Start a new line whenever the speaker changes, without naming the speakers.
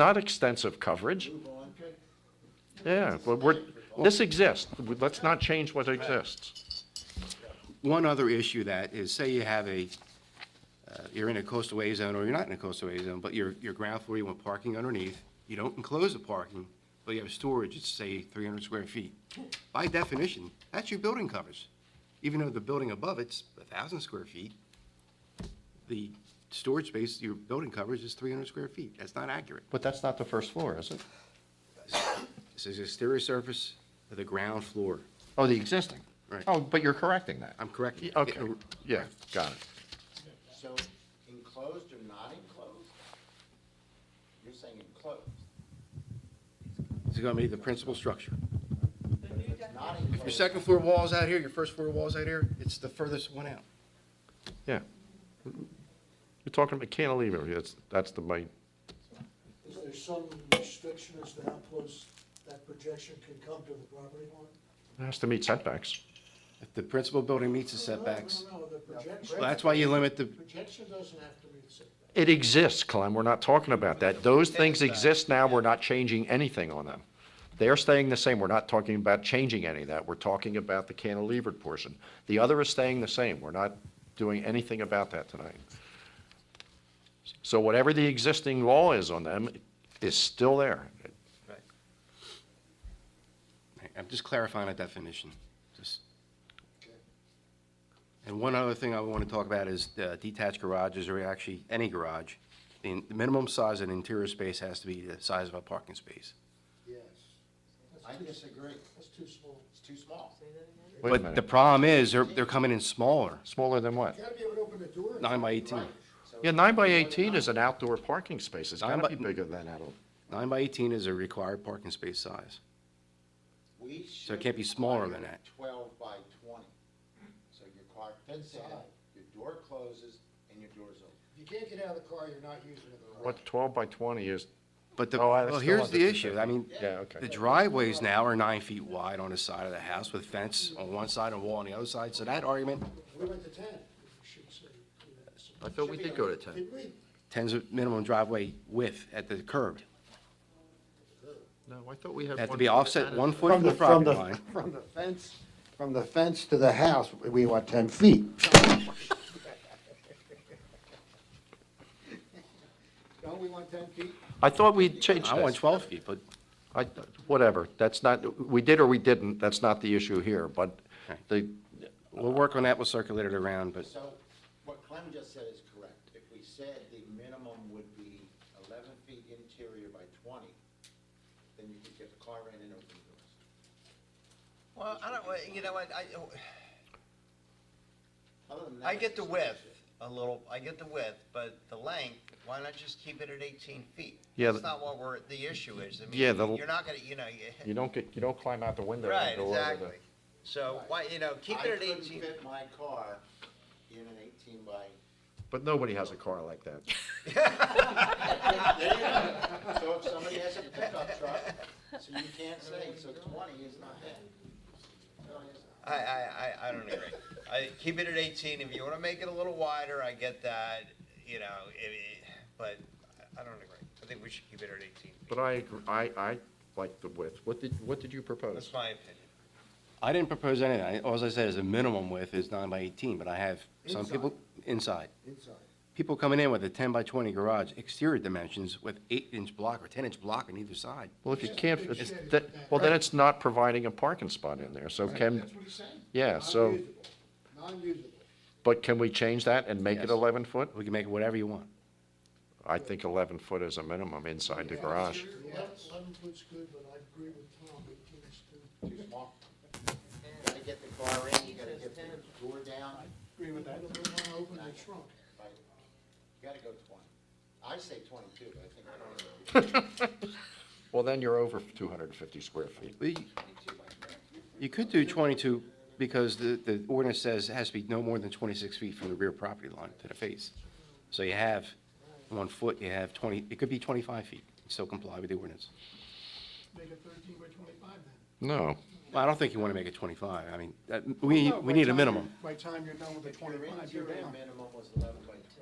not extensive coverage.
Move on.
Yeah, but we're, this exists. Let's not change what exists.
One other issue that is, say you have a, uh, you're in a coastal A zone, or you're not in a coastal A zone, but your, your ground floor, you want parking underneath, you don't enclose the parking, but you have storage, it's say three hundred square feet. By definition, that's your building covers. Even though the building above it's thousand square feet, the storage space, your building covers is three hundred square feet. That's not accurate.
But that's not the first floor, is it?
This is exterior surface of the ground floor.
Oh, the existing?
Right.
Oh, but you're correcting that.
I'm correct?
Y- Okay, yeah, got it.
So enclosed or not enclosed? You're saying enclosed.
It's gonna be the principal structure.
Not
If your
enclosed,
second floor wall's out here, your first floor wall's out here, it's the furthest one out.
Yeah. You're talking about cantilever, that's, that's the main,
Is there some restriction as to how close that projection can come to the property line?
it has to meet setbacks.
If the principal building meets the setbacks,
No, no, no, the projection,
well, that's why you limit the,
projection doesn't have to be the setback.
It exists, Clem, we're not talking about that. Those things exist now, we're not changing anything on them. They are staying the same, we're not talking about changing any of that, we're talking about the cantilevered portion. The other is staying the same, we're not doing anything about that tonight. So whatever the existing law is on them is still there.
I'm just clarifying a definition, just. And one other thing I want to talk about is uh, detached garages, or actually any garage. The the minimum size of an interior space has to be the size of a parking space.
Yes.
I disagree.
That's too small.
It's too small.
Wait a
But the
minute,
problem is, they're, they're coming in smaller,
smaller than what?
You gotta be able to open the door. and-
nine by eighteen.
Yeah, nine by eighteen is an outdoor parking space, it's
Nine
gotta be
by-
bigger than that.
Nine by eighteen is a required parking space size.
We should.
So it can't be smaller than that.
Twelve by twenty. So your car fits in, your door closes, and your door's open.
If you can't get out of the car, you're not using the garage.
What, twelve by twenty is,
But the,
Oh, I- it's
well,
still
here's
under
the
250.
issue, I mean,
yeah, okay.
the driveways now are nine feet wide on the side of the house with fence on one side and wall on the other side, so that argument,
We went to ten, we should say. yeah.
I thought we did go to 10.
Did we?
tens of minimum driveway width at the curb.
No, I thought we had.
That to
one
be
foot
offset
added.
one foot from the property line.
from the fence, from the fence to the house, we want ten feet. Don't we want ten feet?
I thought we changed
I
that.
want twelve feet, but
I, whatever, that's not, we did or we didn't, that's not the issue here, but the,
we'll work on that, we'll circulate it around, but
So what Clem just said is correct. If we said the minimum would be eleven feet interior by twenty, then you could get the car in and open the doors.
Well, I don't, well, you know, what, I,
Other than
I
that,
get the
it's-
width a little, I get the width, but the length, why not just keep it at eighteen feet?
Yeah,
That's
the-
not what we're, the issue is. I mean,
Yeah, the-
You're not gonna, you know,
you
you,
don't get, you don't climb out the window and
right,
go over the.
exactly. So why, you know, keep it at
I couldn't
eighteen.
fit my car in an eighteen by.
But nobody has a car like that.
So if somebody has a pickup truck, so you can't say, so twenty is not that. No, it's not.
I, I, I, I don't agree. I, keep it at eighteen. If you wanna make it a little wider, I get that, you know, it, it- but I- I don't agree. I think we should keep it at eighteen.
But I, agree- I, I like the width. What did, what did you propose?
That's my opinion.
I didn't propose anything. I- All I said is a minimum width is nine by eighteen, but I have some people inside.
Inside.
People coming in with a ten by twenty garage, exterior dimensions with eight-inch block or ten-inch block on either side.
Well, if you can't,
It's-
it's- that, well, then it's not providing a parking spot in there, so can,
That's what he's saying.
yeah, so,
Non-usable. Non-usable.
but can we change that and make it
Yes.
eleven foot?
We can make it whatever you want.
I think eleven foot is a minimum inside the garage.
Eleven eleven foot's good, but I agree with Tom, eighteen's too.
Too small. You gotta get the car in, you gotta get the door down,
Agree with that. I don't wanna open the trunk.
like, you gotta go twenty. I say twenty-two, but I think I don't know.
Well, then you're over two hundred and fifty square feet.
Well, you- You could do 22 because the, the ordinance says it has to be no more than 26 feet from the rear property line to the face. So you have one foot, you have 20, it could be 25 feet, still comply with the ordinance.
Make it thirteen by twenty-five then.
No,
Well, I don't think you want to make it 25. I mean, that- we, we need a minimum.
By the time you're done with the
Your
twenty-five, you're
interior
down.
minimum was eleven by